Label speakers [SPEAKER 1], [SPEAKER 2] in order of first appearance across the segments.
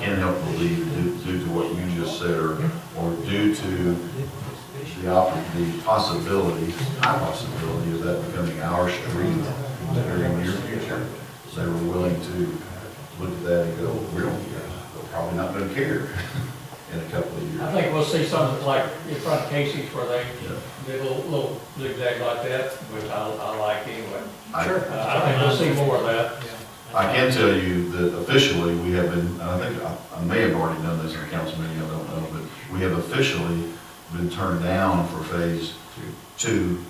[SPEAKER 1] can't help believe due- due to what you just said or, or due to the op, the possibility, high possibility of that becoming our street in the very near future. They were willing to look at that and go, we don't care, they're probably not gonna care in a couple of
[SPEAKER 2] I
[SPEAKER 1] years.
[SPEAKER 2] think we'll see something like in front of Casey's where they
[SPEAKER 1] Yeah.
[SPEAKER 2] did a little, little zigzag like that, which I, I like anyway.
[SPEAKER 1] I,
[SPEAKER 2] Uh, I think we'll see more of that.
[SPEAKER 1] I can tell you that officially, we have been, and I think, I I may have already done this in a council meeting, I don't know, but we have officially been turned down for phase two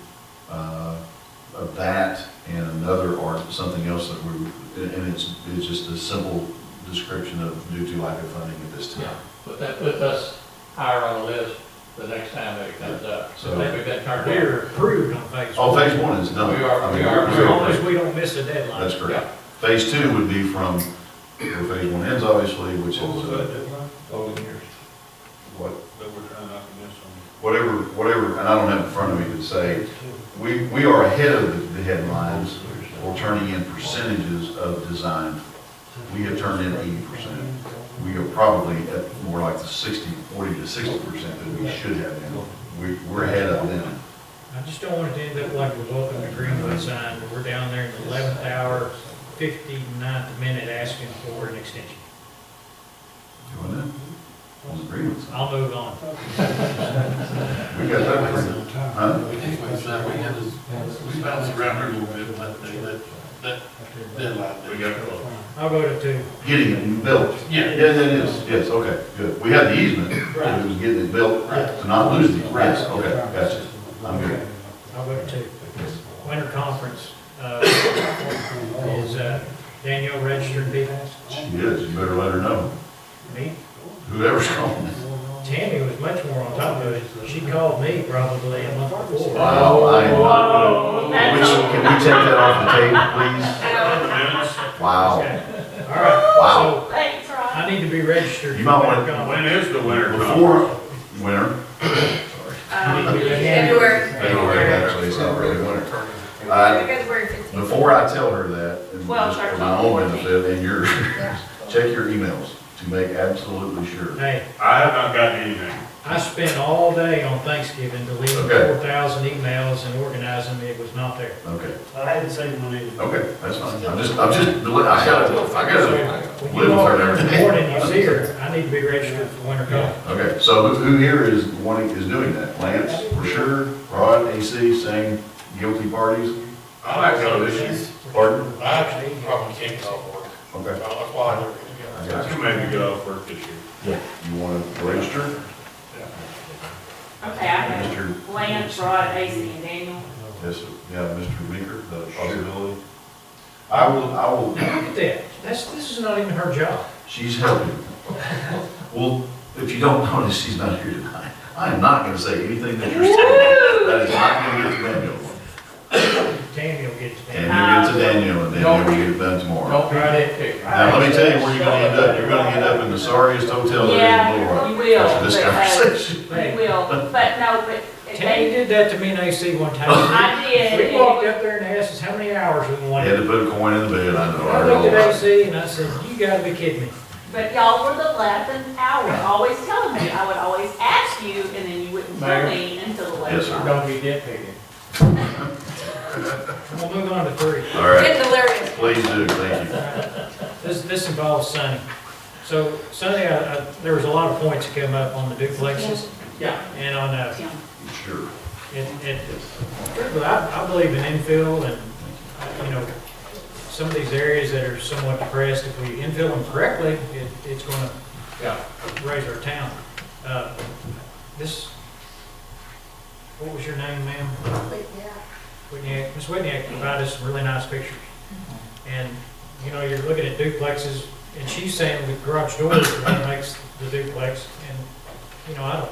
[SPEAKER 1] uh, of that and another or something else that we, and- and it's, it's just a simple description of due to lack of funding at this
[SPEAKER 2] Yeah,
[SPEAKER 1] time.
[SPEAKER 2] but that puts us higher on the list the next time that it comes up. So I think we've been turned down.
[SPEAKER 3] We're approved on phase
[SPEAKER 1] Oh,
[SPEAKER 3] one,
[SPEAKER 1] phase one is done.
[SPEAKER 2] We are-
[SPEAKER 1] I mean,
[SPEAKER 2] we are-
[SPEAKER 3] as
[SPEAKER 1] we're-
[SPEAKER 3] long as we don't miss a deadline.
[SPEAKER 1] That's correct. Phase two would be from, where phase one ends, obviously, which is,
[SPEAKER 4] What was
[SPEAKER 1] uh,
[SPEAKER 4] that deadline? All the years
[SPEAKER 1] what,
[SPEAKER 4] that we're trying not to miss on.
[SPEAKER 1] whatever, whatever, and I don't have in front of me to say, we, we are ahead of the headlines for turning in percentages of design. We have turned in eighty percent. We are probably at more like the 60, 40 to sixty percent that we should have been. We, we're ahead of them.
[SPEAKER 3] I just don't want it to end up like we welcome to Greenwood sign, where we're down there in the eleventh hour, 59th minute asking for an extension.
[SPEAKER 1] Doing that? On agreements.
[SPEAKER 3] I'll move on.
[SPEAKER 1] We got that agreement. Huh?
[SPEAKER 5] Anyways, that we had this, we bounced around here a little bit, but they, that, that deadline. We got close.
[SPEAKER 3] I'll go to two.
[SPEAKER 1] Getting it built.
[SPEAKER 5] Yeah.
[SPEAKER 1] Yeah, that is, yes, okay, good. We had the easement, but it was getting it built to not lose the, yes, okay, gotcha. I'm good.
[SPEAKER 3] I'll go to two. Winter conference, uh, is, uh, Danielle registered people?
[SPEAKER 1] She is, you better let her know.
[SPEAKER 3] Me?
[SPEAKER 1] Whoever's calling.
[SPEAKER 3] Tammy was much more on top of it. She called me probably a month before.
[SPEAKER 1] Wow, I am not good.
[SPEAKER 6] Oh,
[SPEAKER 1] Which,
[SPEAKER 6] that's all.
[SPEAKER 1] can we take that off the table, please? Wow,
[SPEAKER 3] Okay. All right.
[SPEAKER 1] Wow.
[SPEAKER 3] So
[SPEAKER 6] Thanks, Rob.
[SPEAKER 3] I need to be registered.
[SPEAKER 1] You might wanna-
[SPEAKER 3] for Winter
[SPEAKER 4] When is the winter?
[SPEAKER 1] before winter,
[SPEAKER 6] Um,
[SPEAKER 1] February,
[SPEAKER 6] February.
[SPEAKER 1] actually, it's not really winter. Uh,
[SPEAKER 6] Because we're fifteen.
[SPEAKER 1] Before I tell her that, and
[SPEAKER 6] Well,
[SPEAKER 1] just for
[SPEAKER 6] sorry,
[SPEAKER 1] my own
[SPEAKER 6] 14.
[SPEAKER 1] benefit and yours, check your emails to make absolutely sure.
[SPEAKER 3] conference. Hey,
[SPEAKER 4] I have not gotten anything.
[SPEAKER 3] I spent all day on Thanksgiving deleting
[SPEAKER 1] Okay.
[SPEAKER 3] four thousand emails and organizing. It was not there.
[SPEAKER 1] Okay,
[SPEAKER 4] I hadn't seen one either.
[SPEAKER 1] okay, that's fine. I'm just, I'm just, I gotta, I gotta live
[SPEAKER 3] When
[SPEAKER 1] with
[SPEAKER 3] you walk in
[SPEAKER 1] her every
[SPEAKER 3] the
[SPEAKER 1] day.
[SPEAKER 3] morning, you see her. I need to be registered for winter golf.
[SPEAKER 1] Okay, so who who here is wanting, is doing that? Lance, for sure, Rod, AC, same guilty parties?
[SPEAKER 5] I have no issues.
[SPEAKER 1] Pardon?
[SPEAKER 5] I actually probably can't call work.
[SPEAKER 1] Okay.
[SPEAKER 5] That's why I never
[SPEAKER 1] I
[SPEAKER 5] get
[SPEAKER 1] got
[SPEAKER 4] You
[SPEAKER 1] you.
[SPEAKER 4] made me get off work this year.
[SPEAKER 1] You want to register?
[SPEAKER 6] Okay, I have
[SPEAKER 1] Mr.
[SPEAKER 6] Lance, Rod, AC, and Daniel.
[SPEAKER 1] Yes, yeah, Mr. Meeker, the possibility. I will, I will,
[SPEAKER 3] Look at that. That's, this is not even her job.
[SPEAKER 1] she's helping. Well, if you don't notice, she's not here tonight. I am not going to say anything that you're saying. That is not going to get to Daniel.
[SPEAKER 3] Tammy will get it.
[SPEAKER 1] And you get to Daniel, and Daniel will get it done tomorrow.
[SPEAKER 2] Don't be that picky.
[SPEAKER 1] Now, let me tell you where you're going to end up. You're going to end up in the sorriest hotel there is in Little
[SPEAKER 6] Yeah,
[SPEAKER 1] Rock.
[SPEAKER 6] you will.
[SPEAKER 1] After this
[SPEAKER 6] but, uh,
[SPEAKER 1] conversation.
[SPEAKER 6] You will, but no, but if
[SPEAKER 3] Tammy
[SPEAKER 6] they,
[SPEAKER 3] did that to me and AC one time.
[SPEAKER 6] I did.
[SPEAKER 3] We walked up there and asked us how many hours we
[SPEAKER 1] I
[SPEAKER 3] wanted.
[SPEAKER 1] had to put a coin in the bed, I know.
[SPEAKER 3] I
[SPEAKER 1] heard all
[SPEAKER 3] looked at
[SPEAKER 1] that.
[SPEAKER 3] AC and I said, you gotta be kidding me.
[SPEAKER 6] But y'all were the eleventh hour, always telling me, I would always ask you, and then you wouldn't tell me until the
[SPEAKER 1] Yes,
[SPEAKER 6] last
[SPEAKER 1] sir.
[SPEAKER 6] hour.
[SPEAKER 2] Don't be that picky.
[SPEAKER 3] We'll move on to three.
[SPEAKER 1] All right,
[SPEAKER 6] Get delirious.
[SPEAKER 1] please do, thank you.
[SPEAKER 3] This, this involves Sonny. So Sonny, I, I, there was a lot of points that came up on the duplexes
[SPEAKER 2] Yeah.
[SPEAKER 3] and on, uh,
[SPEAKER 6] Tim.
[SPEAKER 1] Sure.
[SPEAKER 3] and, and, truthfully, I, I believe in infill and, uh, you know, some of these areas that are somewhat depressed, if we infill them correctly, it, it's gonna
[SPEAKER 2] Yeah.
[SPEAKER 3] raise our town. Uh, This, what was your name, ma'am? Whitney, Ms. Whitney provided us some really nice pictures. And, you know, you're looking at duplexes, and she's saying with garage doors, that makes the duplex, and, you know, I don't,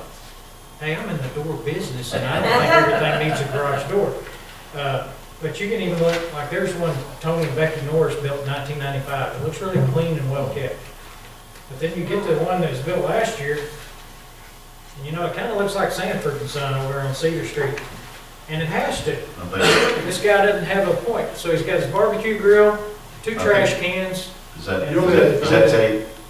[SPEAKER 3] hey, I'm in the door business, and I don't think everything needs a garage door. Uh, But you can even look, like, there's one Tony and Becky Norris built in nineteen ninety-five, it looks really clean and well kept. But then you get to the one that was built last year, and you know, it kinda looks like Sanford and Son over there on Cedar Street, and it has to.
[SPEAKER 1] I think,
[SPEAKER 3] This guy doesn't have a point, so he's got his barbecue grill, two trash cans.
[SPEAKER 1] is that, is that- is that tape?